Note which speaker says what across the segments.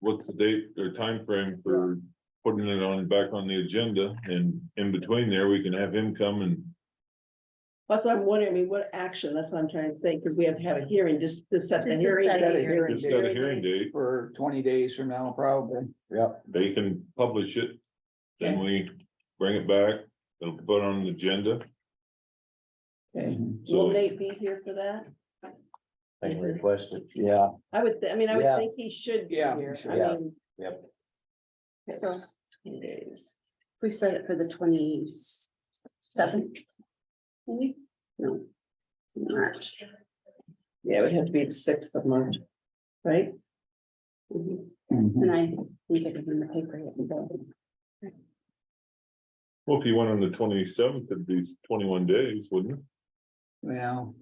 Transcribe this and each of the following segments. Speaker 1: what's the date or time frame for putting it on, back on the agenda? And in between there, we can have him come and,
Speaker 2: Plus, I'm wondering, I mean, what action, that's what I'm trying to think, because we have to have a hearing, just to set the
Speaker 3: Just to
Speaker 2: hearing.
Speaker 3: set a
Speaker 2: date.
Speaker 3: hearing
Speaker 1: just got a hearing date,
Speaker 4: for twenty days from now, probably. Yep.
Speaker 1: they can publish it. Then we bring it back, they'll put it on the agenda,
Speaker 4: Okay.
Speaker 2: Will
Speaker 1: So-
Speaker 2: Nate be here for that?
Speaker 5: I can request it.
Speaker 4: Yeah.
Speaker 2: I would, thi- I mean, I would
Speaker 4: Yeah.
Speaker 2: think he should be
Speaker 4: Yeah, he
Speaker 2: here,
Speaker 4: should,
Speaker 2: I
Speaker 4: yeah,
Speaker 2: mean.
Speaker 5: yep.
Speaker 3: So-
Speaker 2: yes, few days.
Speaker 3: we set it for the twenty seventh. Maybe? No. March.
Speaker 2: Yeah, it would have to be the sixth of March, right? Mm-hmm.
Speaker 3: Mhm.
Speaker 4: Mhm.
Speaker 3: And I need to give them the paper. yet, but-
Speaker 1: well, if you went on the twenty-seventh, it'd be twenty-one days, wouldn't it?
Speaker 4: Well,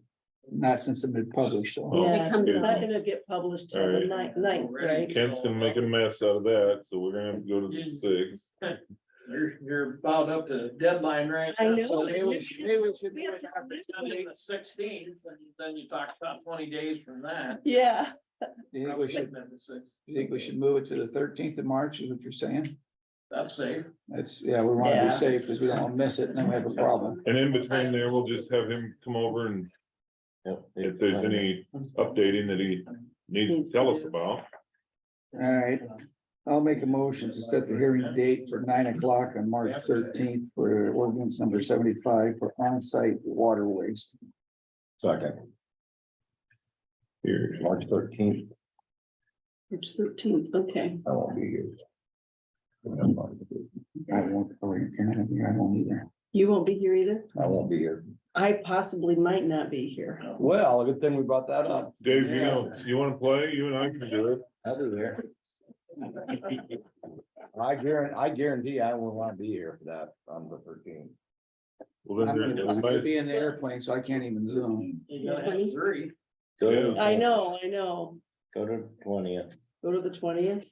Speaker 4: not since it's been published, so.
Speaker 1: Oh,
Speaker 2: Yeah,
Speaker 3: comes
Speaker 2: it's
Speaker 1: out.
Speaker 2: not gonna get published till the ninth, ninth, right?
Speaker 1: Kent's gonna make a mess out of that, so we're gonna have to go to the sixth.
Speaker 6: You're, you're about up to the deadline right
Speaker 2: I
Speaker 6: now.
Speaker 2: know.
Speaker 6: So
Speaker 4: Maybe we should- maybe we should
Speaker 2: We
Speaker 4: do
Speaker 2: have
Speaker 4: it
Speaker 2: to-
Speaker 4: after Sunday.
Speaker 6: Sixteenth, and then you talk about twenty days from that.
Speaker 2: Yeah,
Speaker 4: Do you think we should,
Speaker 6: Probably the 6th.
Speaker 4: do you think we should move it to the thirteenth of March, is what you're saying?
Speaker 6: That's safe.
Speaker 4: That's, yeah, we wanna
Speaker 2: Yeah.
Speaker 4: be safe, because we don't wanna miss it, and then we have a problem.
Speaker 1: And in between there, we'll just have him come over and
Speaker 5: Yep.
Speaker 1: if there's any updating that he needs to tell us about.
Speaker 4: All right, I'll make a motion to set the hearing date for nine o'clock on March thirteenth for ordinance number seventy-five for on-site water waste.
Speaker 5: Second.
Speaker 1: Here,
Speaker 5: March thirteenth,
Speaker 2: it's thirteenth, okay.
Speaker 5: I won't be here.
Speaker 4: I won't, oh, or you're not here, I won't either.
Speaker 2: You won't be here either?
Speaker 5: I won't be here.
Speaker 2: I possibly might not be here.
Speaker 5: Well, good thing we brought that up.
Speaker 1: Dave, you know, you wanna play? You and I can do it.
Speaker 5: I'll be there. I guarantee, I guarantee I won't want to be here for that on the thirteenth.
Speaker 1: Well, then
Speaker 4: I'm
Speaker 1: there-
Speaker 4: gonna- I'm gonna
Speaker 1: everybody's-
Speaker 4: be in the airplane, so I can't even zoom.
Speaker 6: You gotta have three.
Speaker 1: Yeah.
Speaker 2: I know, I know.
Speaker 5: Go to twentieth.
Speaker 2: Go to the twentieth.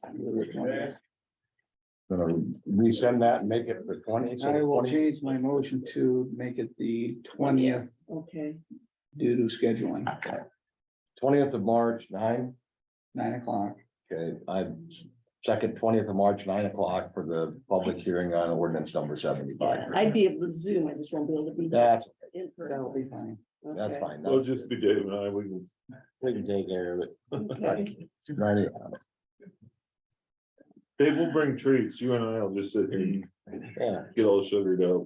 Speaker 5: Resend that and make it the twentieth.
Speaker 4: I will change my motion to make it the twentieth
Speaker 2: Okay,
Speaker 4: due to scheduling,
Speaker 5: Twentieth of March, nine,
Speaker 4: nine o'clock.
Speaker 5: okay, I second twentieth of March, nine o'clock for the public hearing on ordinance number
Speaker 2: yeah,
Speaker 5: seventy-five.
Speaker 2: I'd be able to zoom, I just won't be able to be.
Speaker 5: That's,
Speaker 2: in person.
Speaker 4: That'll be fine.
Speaker 5: that's
Speaker 2: Okay,
Speaker 5: fine.
Speaker 1: It'll just be Dave and I, we can.
Speaker 5: We can take care of it.
Speaker 2: okay.
Speaker 5: Right.
Speaker 1: Dave, will bring treats. You and I will just sit here and
Speaker 5: Yeah,
Speaker 1: get all sugared up.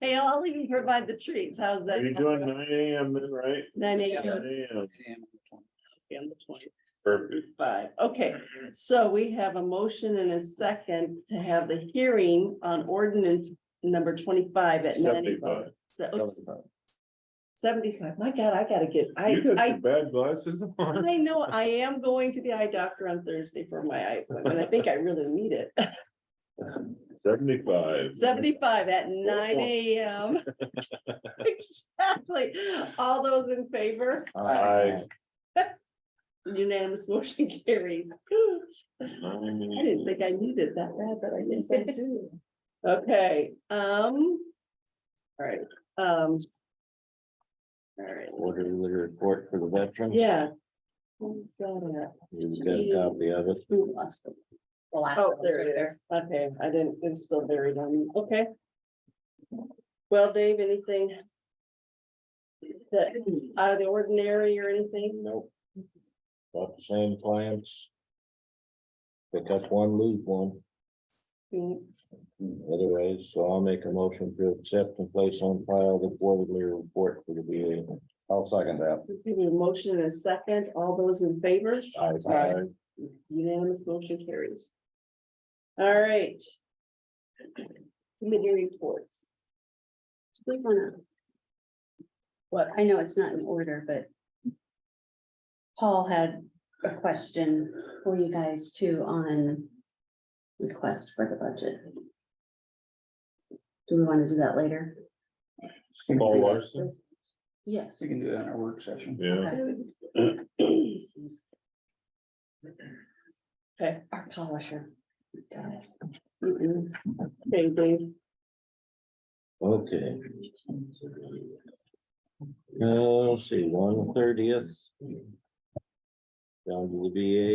Speaker 2: Hey, I'll even provide the treats, how's that?
Speaker 1: You're doing nine AM then, right?
Speaker 2: Nine
Speaker 1: Nine
Speaker 2: AM,
Speaker 1: AM,
Speaker 2: on the twenty-five,
Speaker 1: perfect.
Speaker 2: okay, so we have a motion and a second to have the hearing on ordinance number twenty-five at nine.
Speaker 1: Seventy-five.
Speaker 2: Se- oops, Seventy-five, my God, I gotta get, I,
Speaker 1: You got
Speaker 2: I,
Speaker 1: your bad glasses on.
Speaker 2: I know, I am going to the eye doctor on Thursday for my eyes, and I think I really need it.
Speaker 1: Seventy-five.
Speaker 2: Seventy-five at nine AM. Exactly, all those in favor,
Speaker 5: Aye.
Speaker 2: unanimous motion carries. I didn't think I needed that bad, but I guess I do. Okay, um. All right, um. All right,
Speaker 5: Order the report for the veteran.
Speaker 2: yeah. Who's got it?
Speaker 5: He's got a copy of it.
Speaker 3: Ooh, last one. The last
Speaker 2: Oh,
Speaker 3: one's
Speaker 2: there
Speaker 3: right
Speaker 2: it is. Okay, I didn't, it's still buried on me. Okay. Well, Dave, anything? That out of the ordinary or anything?
Speaker 5: Nope. Got the same plans. Pick up one, lose one. Otherwise, so I'll make a motion to accept and place on file the quarterly report for the VA. I'll second that.
Speaker 2: Give me a motion and a second. All those in favor?
Speaker 5: Aye.
Speaker 2: Unanimous motion carries. All right. Committee reports.
Speaker 3: We wanna. What, I know it's not in order, but. Paul had a question for you guys too on. Request for the budget. Do we wanna do that later?
Speaker 4: We can
Speaker 1: Paul
Speaker 4: do that.
Speaker 1: Larson,
Speaker 3: Yes.
Speaker 4: We can do that in our work session.
Speaker 1: yeah.
Speaker 3: Okay.
Speaker 2: Okay.
Speaker 3: Our polisher. Got it.
Speaker 2: Mm-mm. Okay, Dave.
Speaker 5: Okay. Uh, let's see, one thirtieth. Down to the VA.